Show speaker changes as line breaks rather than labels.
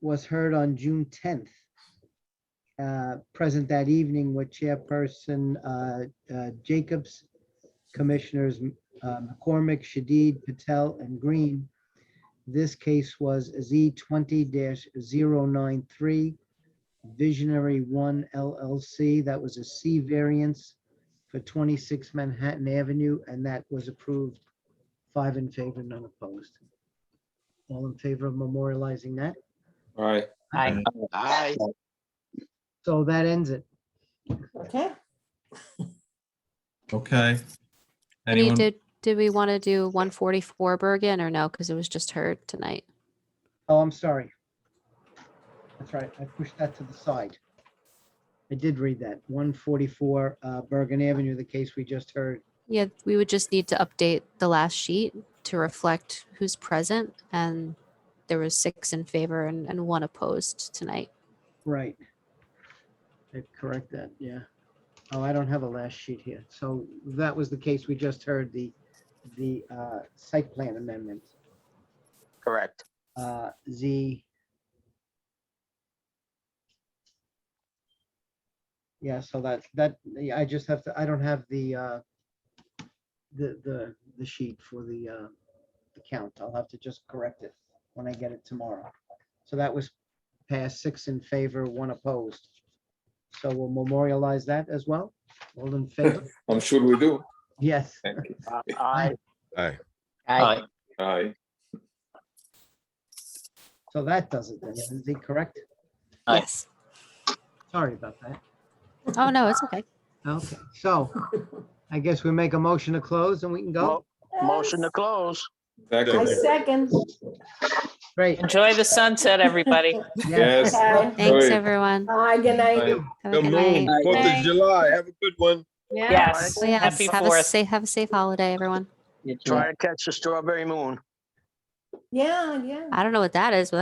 was heard on June tenth. Uh, present that evening with Chairperson, uh, uh, Jacobs, Commissioners, uh, McCormick, Shadid, Patel, and Green. This case was Z twenty 93 Visionary One LLC. That was a C variance for twenty-six Manhattan Avenue, and that was approved five in favor, none opposed. All in favor of memorializing that?
All right.
Aye.
Aye.
So that ends it.
Okay.
Okay.
Do you-
Anyone?
Did, did we want to do one forty-four Bergen or no? Because it was just heard tonight.
Oh, I'm sorry. That's right. I pushed that to the side. I did read that. One forty-four uh, Bergen Avenue, the case we just heard.
Yeah, we would just need to update the last sheet to reflect who's present and there was six in favor and, and one opposed tonight.
Right. I correct that, yeah. Oh, I don't have a last sheet here. So that was the case we just heard, the, the uh, site plan amendment.
Correct.
uh, Z. Yeah, so that, that, yeah, I just have to, I don't have the, uh, the, the, the sheet for the, uh, the count. I'll have to just correct it when I get it tomorrow. So that was passed six in favor, one opposed. So we'll memorialize that as well. All in favor?
I'm sure Um, we do.
Yes.
Thank you.
Uh, Aye.
Aye.
Aye.
Aye.
So that does it then. Lindsay, correct?
Aye.
Yes.
Sorry about that.
Oh, no, it's okay.
Okay, so I guess we make a motion to close and we can go.
Mo- Motion to close.
I
Second.
second.
Great.
Enjoy the sunset, everybody.
Yes.
Yes.
Okay.
Thanks,
Sorry.
everyone.
Hi, good night.
Have
Come
a good
on,
night.
Fourth of July. Have a good one.
Yes.
Oh, yes,
Happy
have a
Fourth.
safe, have a safe holiday, everyone.
Try to catch the strawberry moon.
Yeah, yeah.
I don't know what that is, but